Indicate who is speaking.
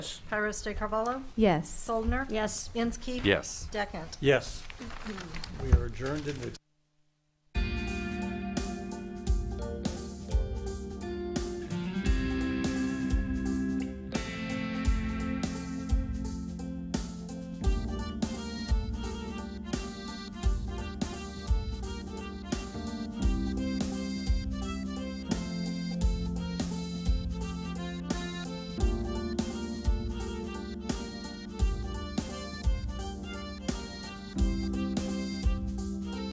Speaker 1: Pyrus de Carvalho?
Speaker 2: Yes.
Speaker 1: Soldner?
Speaker 3: Yes.
Speaker 1: Inskeep?
Speaker 4: Yes.
Speaker 1: Deckent?
Speaker 5: Yes. We are adjourned in the